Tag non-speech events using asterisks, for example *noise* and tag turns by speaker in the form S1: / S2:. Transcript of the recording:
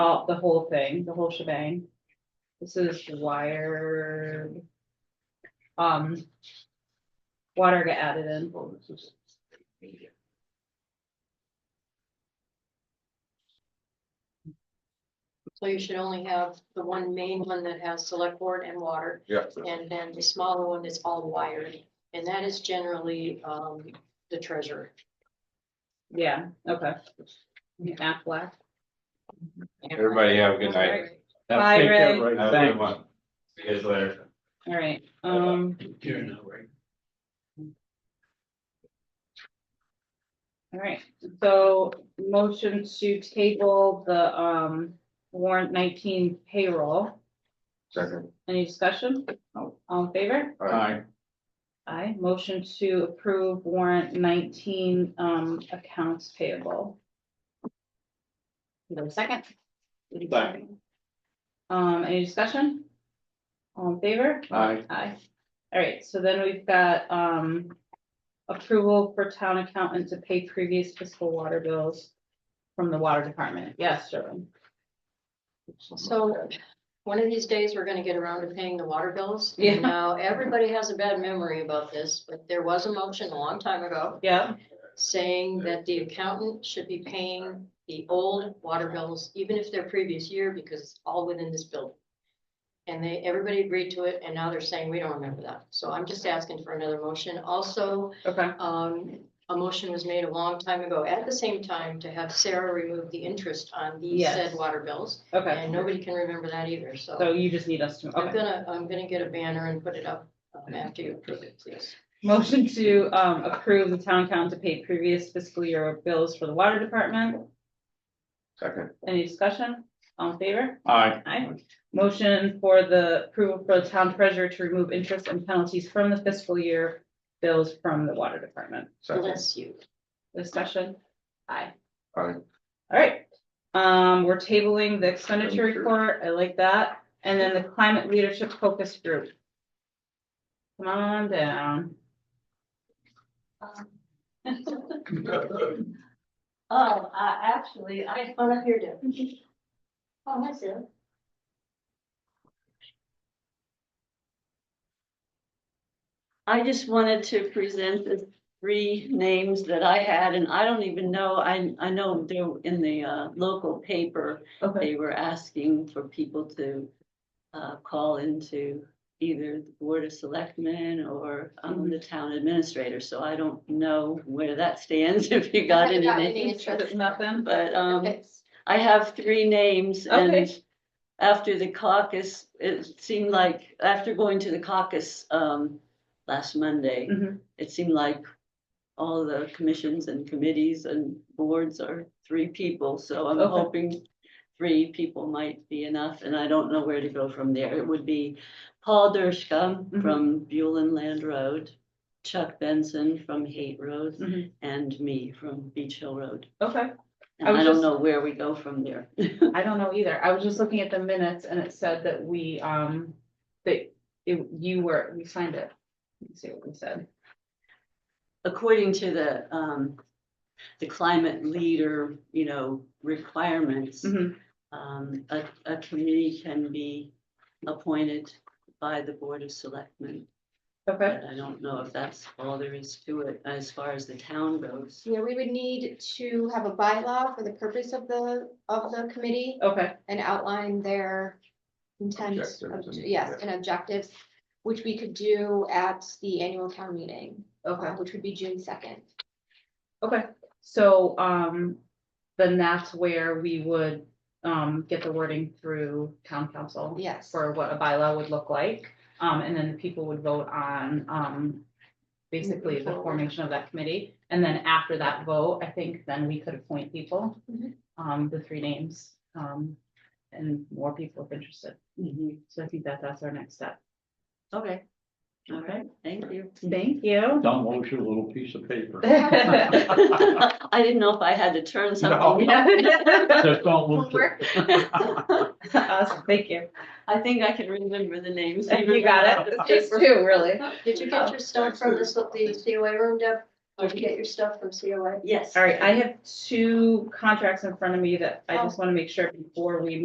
S1: all, the whole thing, the whole shebang. This is wired. Um. Water got added in.
S2: So you should only have the one main one that has select board and water,
S3: Yeah.
S2: and then the smaller one that's all wired. And that is generally, um, the treasurer.
S1: Yeah, okay. Half black.
S3: Everybody have a good night.
S2: Alright.
S1: Bye,
S4: Take care,
S1: Ray.
S4: Ray.
S3: Have a
S4: Thanks.
S3: good one. See you guys later.
S1: All right, um,
S5: You're not right.
S1: all right, so motion to table the, um, warrant nineteen payroll.
S3: Second.
S1: Any discussion?
S4: No.
S1: All in favor?
S3: All right.
S4: Aye.
S1: Aye. Motion to approve warrant nineteen, um, accounts payable. Is there a second?
S4: Second.
S1: Um, any discussion? All in favor?
S4: Aye.
S1: Aye. All right, so then we've got, um, approval for town accountant to pay previous fiscal water bills from the water department. Yes, Sherwin.
S2: So, one of these days, we're gonna get around to paying the water bills.
S1: Yeah.
S2: Now, everybody has a bad memory about this, but there was a motion a long time ago
S1: Yeah,
S2: saying that the accountant should be paying the old water bills, even if they're previous year, because it's all within this building. And they, everybody agreed to it, and now they're saying, we don't remember that. So I'm just asking for another motion. Also,
S1: okay,
S2: um, a motion was made a long time ago at the same time to have Sarah remove the interest on these
S1: Yes.
S2: said water bills.
S1: okay.
S2: And nobody can remember that either, so
S1: So you just need us to,
S2: I'm
S1: okay.
S2: gonna, I'm gonna get a banner and put it up um, after you approve it, please.
S1: Motion to, um, approve the town accountant to pay previous fiscal year bills for the water department.
S3: Second.
S1: Any discussion? All in favor?
S4: Aye.
S1: Aye. Motion for the approval for the town treasurer to remove interest and penalties from the fiscal year bills from the water department.
S3: Second.
S2: Bless you.
S1: Discussion? Aye.
S3: Aye.
S1: All right, um, we're tabling the expenditure report. I like that. And then the climate leadership focus group. Come on down.
S6: Oh, uh, actually, I,
S2: On up here, Deb.
S6: oh, that's it. I just wanted to present the three names that I had, and I don't even know, I, I know they're in the, uh, local paper.
S1: Okay.
S6: They were asking for people to, uh, call into either the Board of Selectmen or, um, the town administrator, so I don't know where that stands, *laughs* if you got any names.
S1: There's Nothing?
S6: But, um,
S2: Okay.
S6: I have three names and
S1: Okay.
S6: after the caucus, it seemed like, after going to the caucus, um, last Monday,
S1: Mhm.
S6: it seemed like all the commissions and committees and boards are three people, so I'm
S1: Okay.
S6: hoping three people might be enough, and I don't know where to go from there. It would be Paul Dershka
S1: Mhm.
S6: from Buellin Land Road, Chuck Benson from Haight Road,
S1: Mhm.
S6: and me from Beach Hill Road.
S1: Okay.
S6: And
S1: I was
S6: I don't
S1: just-
S6: know where we go from there.
S1: I don't know either. I was just looking at the minutes and it said that we, um, that it, you were, we signed it. Let's see what we said.
S6: according to the, um, the climate leader, you know, requirements,
S1: Mhm.
S6: um, a, a committee can be appointed by the Board of Selectmen.
S1: Okay,
S6: But I don't know if that's all there is to it as far as the town goes.
S7: Yeah, we would need to have a bylaw for the purpose of the, of the committee
S1: okay,
S7: and outline their intent,
S3: Objectives
S7: obj-
S3: and-
S7: yes, and objectives, which we could do at the annual town meeting, uh,
S1: okay,
S7: which would be June second.
S1: okay. So, um, then that's where we would, um, get the wording through town council.
S7: Yes,
S1: For what a bylaw would look like, um, and then the people would vote on, um, basically the
S7: Moving forward.
S1: formation of that committee. And then after that vote, I think then we could appoint people,
S7: Mhm.
S1: um, the three names, um, and more people if interested.
S6: Mhm.
S1: So I think that that's our next step.
S6: Okay, all right,
S1: *laughs*
S6: thank you.
S1: Thank you.
S4: Don't lose your little piece of paper. *laughs*
S6: I didn't know if I had to turn something.
S1: *laughs*
S4: Just don't lose it.
S1: Us, thank you.
S6: I think I can remember the names.
S1: You
S6: even
S1: got it.
S6: without the
S1: It's
S6: paper.
S1: two, really.
S2: Did you get your stuff from this, the COA room, Deb?
S7: Did you get your stuff from COA?
S6: Yes.
S1: Oh. All right, I have two contracts in front of me that I just want to make sure before we